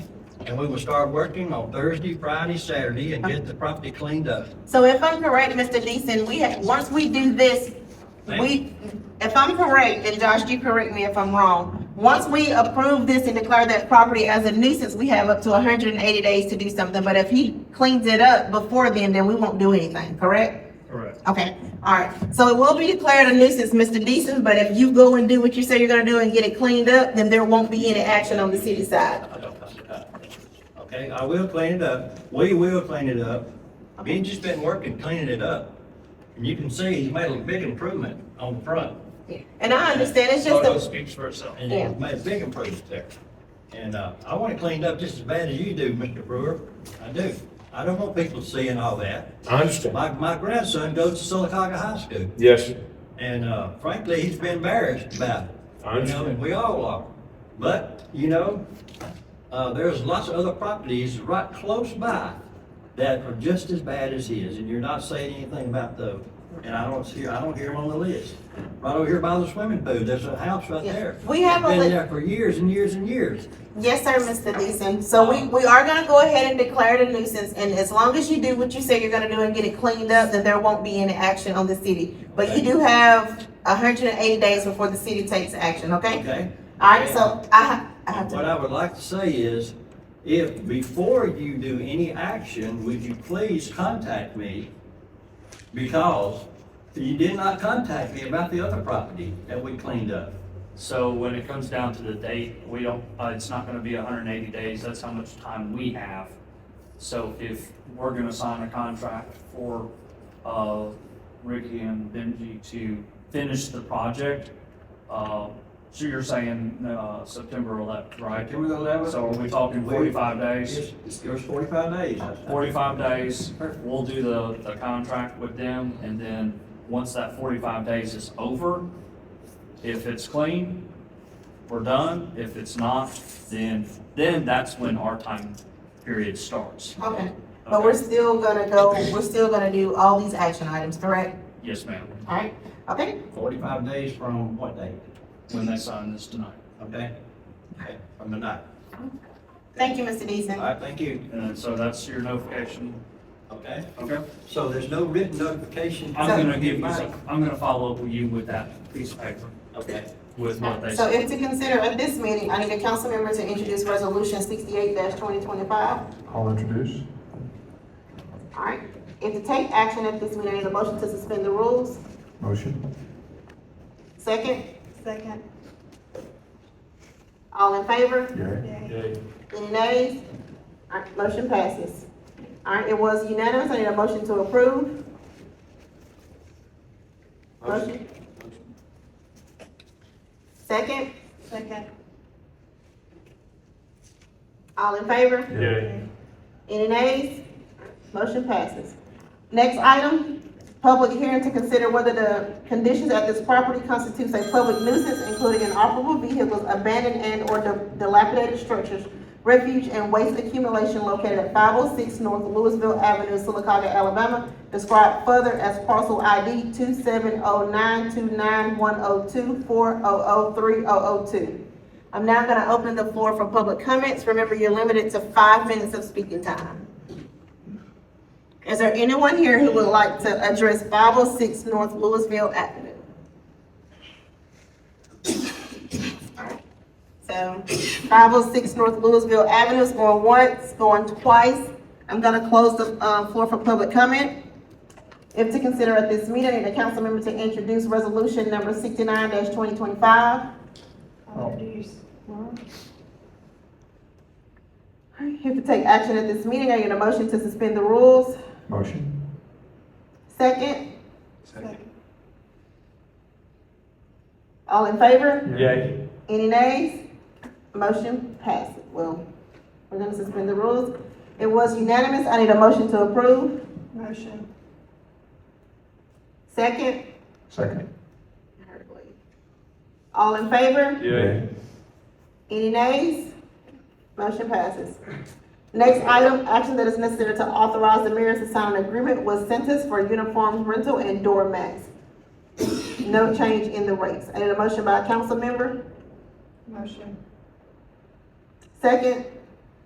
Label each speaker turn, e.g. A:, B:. A: and we will start working on Thursday, Friday, Saturday, and get the property cleaned up.
B: So if I'm correct, Mr. Deason, we have, once we do this, we, if I'm correct, and Josh, you correct me if I'm wrong, once we approve this and declare that property as a nuisance, we have up to hundred and eighty days to do something, but if he cleans it up before then, then we won't do anything, correct?
C: Correct.
B: Okay, all right, so it will be declared a nuisance, Mr. Deason, but if you go and do what you say you're gonna do and get it cleaned up, then there won't be any action on the city side.
A: Okay, I will clean it up. We will clean it up. Benji's been working cleaning it up. And you can see he's made a big improvement on the front.
B: And I understand, it's just
C: Photo
B: a,
C: speaks for itself.
A: And
B: Yeah.
A: he's made a big improvement there. And, uh, I want it cleaned up just as bad as you do, Mr. Brewer. I do. I don't want people seeing all that.
D: I understand.
A: My, my grandson goes to Silicaca High School.
D: Yes, sir.
A: And uh, frankly, he's been embarrassed about it.
D: I understand.
A: You know, and we all are. But, you know, uh, there's lots of other properties right close by that are just as bad as his, and you're not saying anything about those. And I don't see, I don't hear them on the list. Right over here by the swimming pool, there's a house right
B: Yeah.
A: there.
B: We have a
A: Been
B: li-
A: there for years and years and years.
B: yes, sir, Mr. Deason, so we,
A: Um,
B: we are gonna go ahead and declare it a nuisance, and as long as you do what you say you're gonna do and get it cleaned up, then there won't be any action on the city. But you do have hundred and eighty days before the city takes action, okay?
A: Okay?
B: All right, so I, ha- I have
A: What
B: to,
A: I would like to say is, if, before you do any action, would you please contact me? Because you did not contact me about the other property that we cleaned up.
C: So when it comes down to the date, we don't, uh, it's not gonna be hundred and eighty days, that's how much time we have. So if we're gonna sign a contract for, uh, Ricky and Benji to finish the project, uh, so you're saying, uh, September eleventh, right?
A: Can we go that way?
C: So are we talking forty-five days?
A: It's- It's, it's forty-five days.
C: Forty-five days, we'll do the, the contract with them, and then, once that forty-five days is over, if it's clean, we're done, if it's not, then, then that's when our time period starts.
B: okay, but we're
C: Okay.
B: still gonna go, we're still gonna do all these action items, correct?
C: Yes, ma'am,
B: All right, okay?
A: Forty-five days from what date?
C: when they sign this tonight,
A: Okay? Okay, From the night.
B: Thank you, Mr.
A: All
B: Deason.
A: right, thank you.
C: and so that's your notification,
A: Okay?
C: okay?
A: So there's no written notification?
C: I'm gonna give you, some- I'm gonna follow up with you with that piece of paper,
A: Okay.
C: with what they
B: So
C: said.
B: if to consider at this meeting, I need a council member to introduce resolution sixty-eight twenty twenty-five.
E: I'll introduce.
B: All right, if to take action at this meeting, I need a motion to suspend the rules.
E: Motion.
B: Second,
F: Second.
B: all in favor?
E: Yay.
F: Yay.
B: Any nays? All right, motion passes. All right, it was unanimous. I need a motion to approve. Motion. Second,
F: Second.
B: all in favor?
E: Yay.
B: Any nays? Motion passes. Next item, public hearing to consider whether the conditions at this property constitutes a public nuisance, including inoperable vehicles, abandoned and/or di- dilapidated structures, refuge and waste accumulation located at five oh six North Louisville Avenue, Silicaca, Alabama, described further as parcel ID two seven oh nine two nine one oh two four oh oh three oh oh two. I'm now gonna open the floor for public comments. Remember, you're limited to five minutes of speaking time. Is there anyone here who would like to address five oh six North Louisville Avenue? Alright, So, five oh six North Louisville Avenue is going once, going twice. I'm gonna close the, uh, floor for public comment. If to consider at this meeting, I need a council member to introduce resolution number sixty-nine twenty twenty-five.
F: I'll introduce.
B: If to take action at this meeting, I need a motion to suspend the rules.
E: Motion.
B: Second,
F: Second.
B: all in favor?
D: Yay.
B: Any nays? Motion passes. Well, we're gonna suspend the rules. It was unanimous. I need a motion to approve.
F: Motion.
B: Second,
E: Second.
B: all in favor?
D: Yay.
B: Any nays? Motion passes. Next item, action that is necessary to authorize the mayor to sign an agreement with Centus for uniforms rental and door mats. No change in the rates. I need a motion by a council member.
F: Motion.
B: Second,